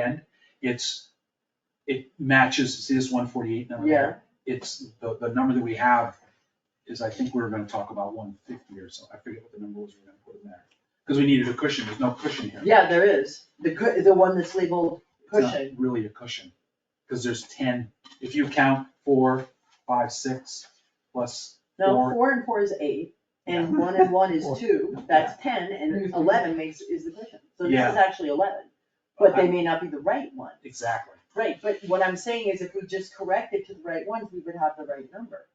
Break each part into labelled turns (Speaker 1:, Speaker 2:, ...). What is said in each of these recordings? Speaker 1: end, it's, it matches this one forty-eight number. there. It's, the, the number that we have is, I think we were gonna talk about one fifty or so, I forget what the number was we were gonna put in there. Cause we needed a cushion, there's no cushion here.
Speaker 2: Yeah, there is, the cu- the one that's labeled
Speaker 1: It's not
Speaker 2: cushion,
Speaker 1: Really a cushion, cause there's ten, if you count four, five, six, plus
Speaker 2: no,
Speaker 1: Four.
Speaker 2: four and four is eight, and one and one is
Speaker 3: Four.
Speaker 2: two, that's ten, and eleven makes, is the cushion, so this
Speaker 1: Yeah.
Speaker 2: is actually eleven. But they may not be the right one,
Speaker 1: Exactly,
Speaker 2: right, but what I'm saying is if we just correct it to the right ones, we would have the right number.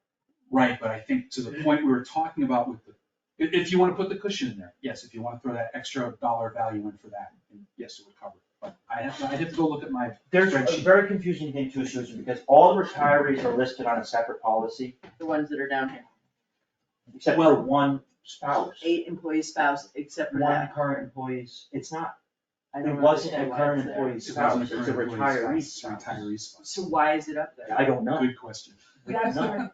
Speaker 1: right, but I think to the point we were talking about with the, if, if you wanna put the cushion in there, yes, if you wanna throw that extra dollar value in for that, then yes, it would cover it. But I have, I'd have to go look at my,
Speaker 3: There's a
Speaker 1: Spreadsheet.
Speaker 3: very confusing thing too, Susan, because all retirees are listed on a separate policy,
Speaker 2: The ones that are down here,
Speaker 3: except for one spouse.
Speaker 2: eight employee spouse, except for
Speaker 3: One
Speaker 2: that,
Speaker 3: current employees, it's not,
Speaker 2: I
Speaker 3: it
Speaker 2: don't
Speaker 3: wasn't a
Speaker 2: understand why it's
Speaker 3: current
Speaker 2: there.
Speaker 3: employee
Speaker 1: it wasn't
Speaker 3: spouse,
Speaker 1: a
Speaker 3: it's a
Speaker 1: current
Speaker 3: retiree
Speaker 1: employee's spouse,
Speaker 3: spouse.
Speaker 1: retiree's spouse.
Speaker 2: So why is it up there?
Speaker 3: I don't know,
Speaker 1: Good question.
Speaker 3: We have none.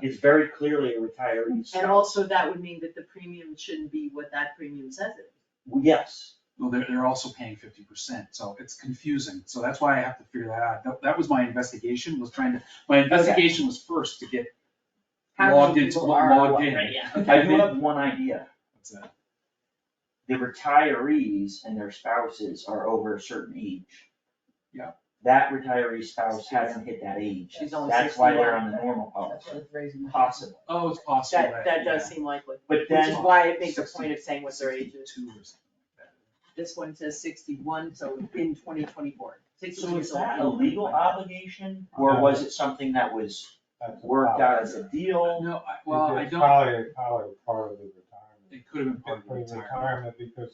Speaker 3: it's very clearly a retiree spouse.
Speaker 2: And also that would mean that the premium shouldn't be what that premium says it is.
Speaker 3: Well, Yes,
Speaker 1: Well, they're, they're also paying fifty percent, so it's confusing, so that's why I have to figure that out, that, that was my investigation, was trying to, my investigation was first to get
Speaker 2: How many
Speaker 1: logged into,
Speaker 2: people are
Speaker 1: logged
Speaker 2: what,
Speaker 1: in.
Speaker 2: right, yeah.
Speaker 3: I do have one idea,
Speaker 1: That's it.
Speaker 3: the retirees and their spouses are over a certain age.
Speaker 1: Yeah.
Speaker 3: That retiree spouse hasn't hit that age,
Speaker 2: She's only
Speaker 3: that's why they're
Speaker 2: 61.
Speaker 3: on the normal policy,
Speaker 2: raising.
Speaker 3: Oh. possible,
Speaker 1: Oh, it's possible,
Speaker 2: That, that does seem likely,
Speaker 3: but
Speaker 2: which
Speaker 3: then.
Speaker 2: is why it makes a point of saying what their age is.
Speaker 1: Two or something like
Speaker 2: This one says sixty-one, so in twenty twenty-four.
Speaker 3: So is that a legal obligation,
Speaker 1: No.
Speaker 3: or was it something that was worked out as a
Speaker 1: that.
Speaker 3: deal?
Speaker 1: No, I, well, I
Speaker 4: It's
Speaker 1: don't,
Speaker 4: Probably, probably part of the retirement,
Speaker 1: it could have been part of the
Speaker 4: part of the
Speaker 1: retirement.
Speaker 4: retirement,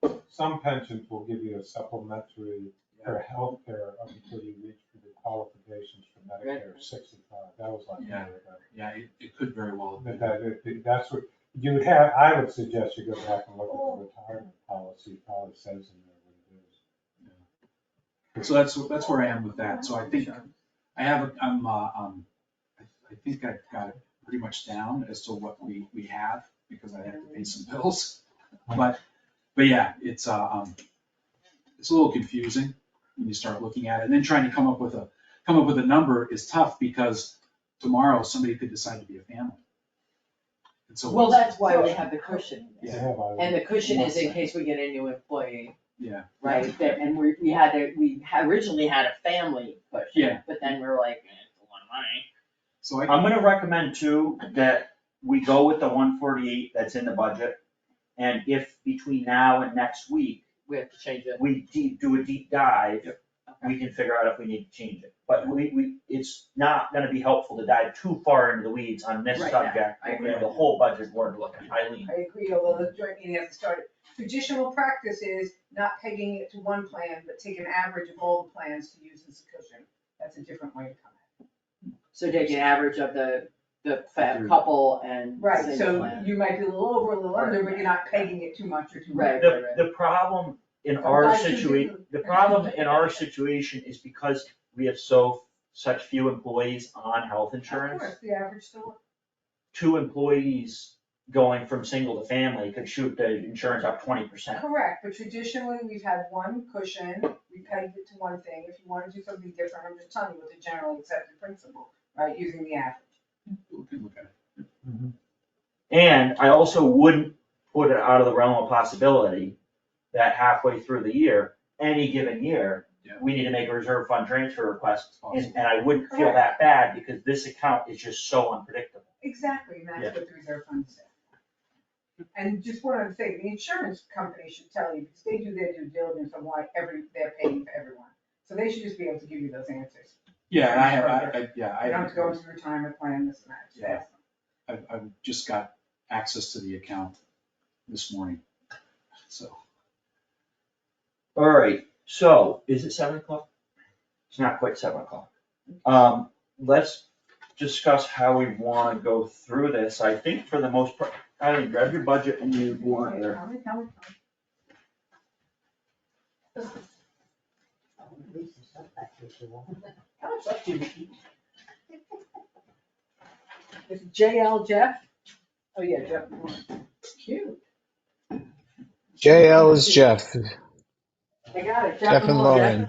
Speaker 4: because some pensions will give you a supplementary for health care up until you reach the qualifications for Medicare sixty-five, that was like.
Speaker 1: Yeah. Yeah, it, it could very well have
Speaker 4: But
Speaker 1: been.
Speaker 4: that, it- that's what, you would have, I would suggest you go back and look at the retirement policy, it probably says in there what it is.
Speaker 1: So that's, that's where I am with that, so I think, I have, I'm, uh, um, I I think I've got it pretty much down as to what we, we have, because I have to pay some bills. But, but yeah, it's, uh, um, it's a little confusing when you start looking at it, and then trying to come up with a, come up with a number is tough, because tomorrow somebody could decide to be a family. And so.
Speaker 2: Well,
Speaker 1: what's-
Speaker 2: that's why we have the cushion.
Speaker 4: They
Speaker 1: Yeah.
Speaker 4: have all
Speaker 2: And
Speaker 4: the-
Speaker 2: the cushion is in case we get a new employee,
Speaker 1: Yeah.
Speaker 2: right? That- And we, we had, a- we ha- originally had a family cushion.
Speaker 1: Yeah.
Speaker 2: But then we were like, eh, it's a lot of money.
Speaker 1: So I,
Speaker 3: I'm gonna recommend too, that we go with the one forty-eight that's in the budget. And if between now and next week,
Speaker 2: We have to change it.
Speaker 3: we deep, do a deep dive,
Speaker 2: Okay.
Speaker 3: we can figure out if we need to change it. But we, we, it's not gonna be helpful to dive too far into the weeds on this
Speaker 2: Right, yeah,
Speaker 3: subject.
Speaker 2: I
Speaker 3: We're gonna
Speaker 2: agree.
Speaker 3: have the whole budget board looking, Eileen.
Speaker 5: I agree, although the joint meeting hasn't started. Traditional practice is not pegging it to one plan, but take an average of all the plans to use as a cushion. That's a different way to come
Speaker 2: So take an average of the, the fa-
Speaker 1: Through-
Speaker 2: couple and
Speaker 5: at it. Right,
Speaker 2: single
Speaker 5: so
Speaker 2: plan.
Speaker 5: you might be a little over, a little under, but you're not pegging it too much or too much.
Speaker 2: Right, right,
Speaker 3: The,
Speaker 2: right.
Speaker 3: the problem in
Speaker 5: But
Speaker 3: our
Speaker 5: why should
Speaker 3: situation,
Speaker 5: you?
Speaker 3: the problem in our situation is because we have so, such few employees on health
Speaker 5: Of
Speaker 3: insurance.
Speaker 5: course, the average still,
Speaker 3: Two employees going from single to family could shoot the insurance up twenty percent.
Speaker 5: correct, but traditionally, we've had one cushion, we pegged it to one thing. If you wanna do something different, I'm just telling you what the generally accepted principle, right, using the average.
Speaker 1: we can look at it.
Speaker 4: Mm-hmm.
Speaker 3: And I also wouldn't put it out of the realm of possibility that halfway through the year, any given year,
Speaker 1: Yeah.
Speaker 3: we need to make a reserve fund transfer request.
Speaker 1: It's
Speaker 3: And,
Speaker 1: possible.
Speaker 3: and I wouldn't feel that bad because this account is just so unpredictable.
Speaker 5: Exactly, and that's what the reserve fund is there. And just what I'm saying, the insurance company should tell you, because they do their due diligence on why every, they're paying for everyone. So they should just be able to give you those answers.
Speaker 1: Yeah, and I have, I, I, yeah, I.
Speaker 5: You don't have to go into the retirement plan, this and that, just ask them.
Speaker 1: I've, I've just got access to the account this morning, so.
Speaker 3: All right, so is it seven o'clock? It's not quite seven o'clock. Um, let's discuss how we wanna go through this. I think for the most part, Eileen, grab your budget and you want
Speaker 5: Okay,
Speaker 3: there.
Speaker 5: tell me, tell me, tell me.
Speaker 2: How much left do you eat?
Speaker 5: It's JL Jeff? Oh, yeah, Jeff Moore. Cute.
Speaker 6: JL is Jeff.
Speaker 7: I got it.
Speaker 5: Jeff and Lauren.